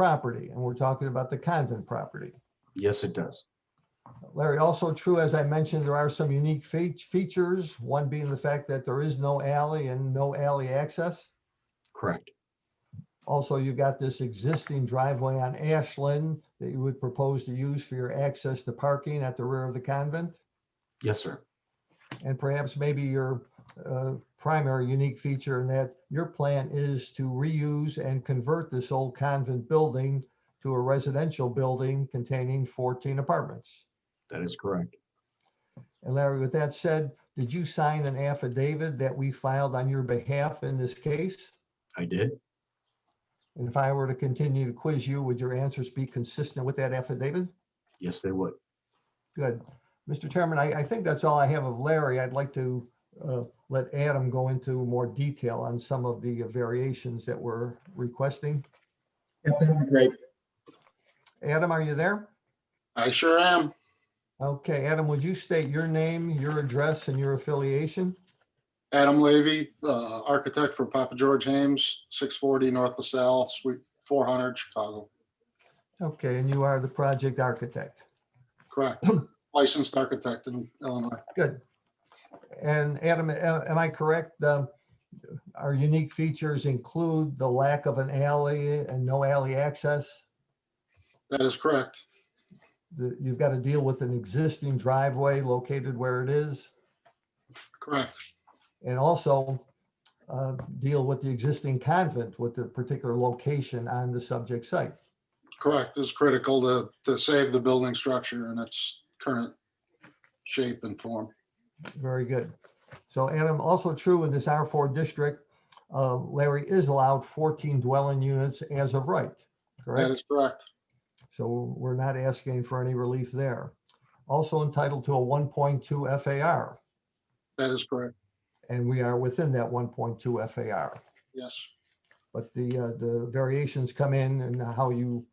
property, and we're talking about the convent property. Yes, it does. Larry, also true, as I mentioned, there are some unique fea- features, one being the fact that there is no alley and no alley access. Correct. Also, you got this existing driveway on Ashland that you would propose to use for your access to parking at the rear of the convent. Yes, sir. And perhaps maybe your uh, primary unique feature in that your plan is to reuse and convert this old convent building to a residential building containing 14 apartments. That is correct. And Larry, with that said, did you sign an affidavit that we filed on your behalf in this case? I did. And if I were to continue to quiz you, would your answers be consistent with that affidavit? Yes, they would. Good. Mr. Chairman, I, I think that's all I have of Larry. I'd like to uh, let Adam go into more detail on some of the variations that we're requesting. Yeah, that'd be great. Adam, are you there? I sure am. Okay, Adam, would you state your name, your address, and your affiliation? Adam Levy, uh, architect for Papa George Hames, 640 North LaSalle, Suite 400, Chicago. Okay, and you are the project architect. Correct. Licensed architect in Illinois. Good. And Adam, a- am I correct? um, Our unique features include the lack of an alley and no alley access. That is correct. The- You've got to deal with an existing driveway located where it is Correct. and also uh, deal with the existing convent with the particular location on the subject site. Correct is critical to, to save the building structure in its current shape and form. Very good. So Adam, also true in this R4 district, uh, Larry is allowed 14 dwelling units as of right, correct? That is correct. So we're not asking for any relief there. Also entitled to a 1.2 FAR, That is correct. and we are within that 1.2 FAR. Yes. But the, uh, the variations come in and how you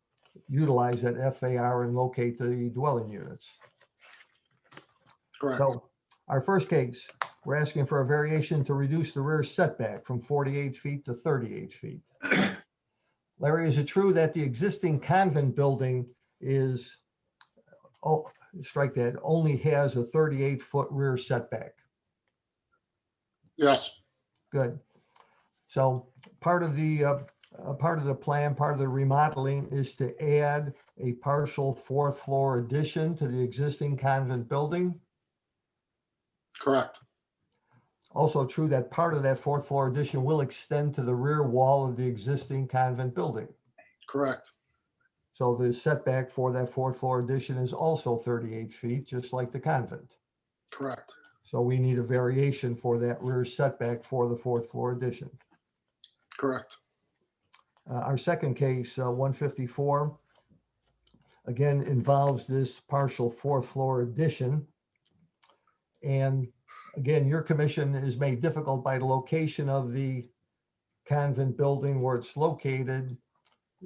utilize that FAR and locate the dwelling units. Correct. So our first case, we're asking for a variation to reduce the rear setback from 48 feet to 38 feet. Larry, is it true that the existing convent building is, oh, strike that, only has a 38-foot rear setback? Yes. Good. So part of the, uh, uh, part of the plan, part of the remodeling is to add a partial fourth floor addition to the existing convent building. Correct. Also true that part of that fourth floor addition will extend to the rear wall of the existing convent building. Correct. So the setback for that fourth floor addition is also 38 feet, just like the convent. Correct. So we need a variation for that rear setback for the fourth floor addition. Correct. Uh, Our second case, uh, 154, again involves this partial fourth floor addition. And again, your commission is made difficult by the location of the convent building where it's located.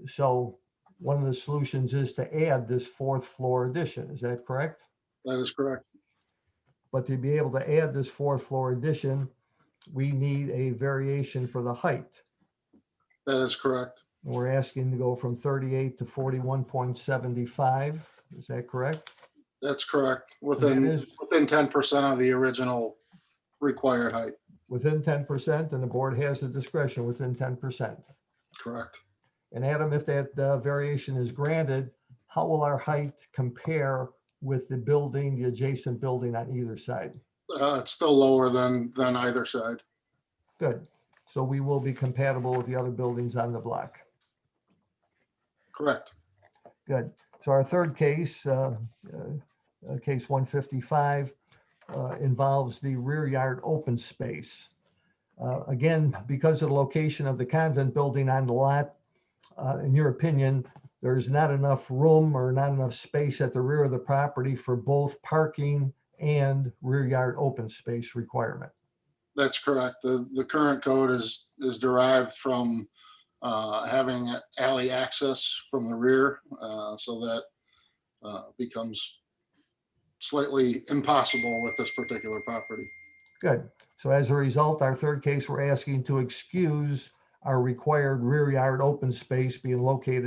So one of the solutions is to add this fourth floor addition. Is that correct? That is correct. But to be able to add this fourth floor addition, we need a variation for the height. That is correct. We're asking to go from 38 to 41.75. Is that correct? That's correct. And Within. that is Within ten percent of the original required height, within 10%, and the board has the discretion within 10%. correct? And Adam, if that uh, variation is granted, how will our height compare with the building, the adjacent building on either side? Uh, it's still lower than, than either side. Good. So we will be compatible with the other buildings on the block. Correct, Good. So our third case, uh, uh, uh, case 155, uh, involves the rear yard open space. Uh, Again, because of the location of the convent building on the lot, uh, in your opinion, there is not enough room or not enough space at the rear of the property for both parking and rear yard open space requirement. that's correct. The, the current code is, is derived from, uh, having alley access from the rear, uh, so that, uh, becomes slightly impossible with this particular property. Good. So as a result, our third case, we're asking to excuse our required rear yard open space being located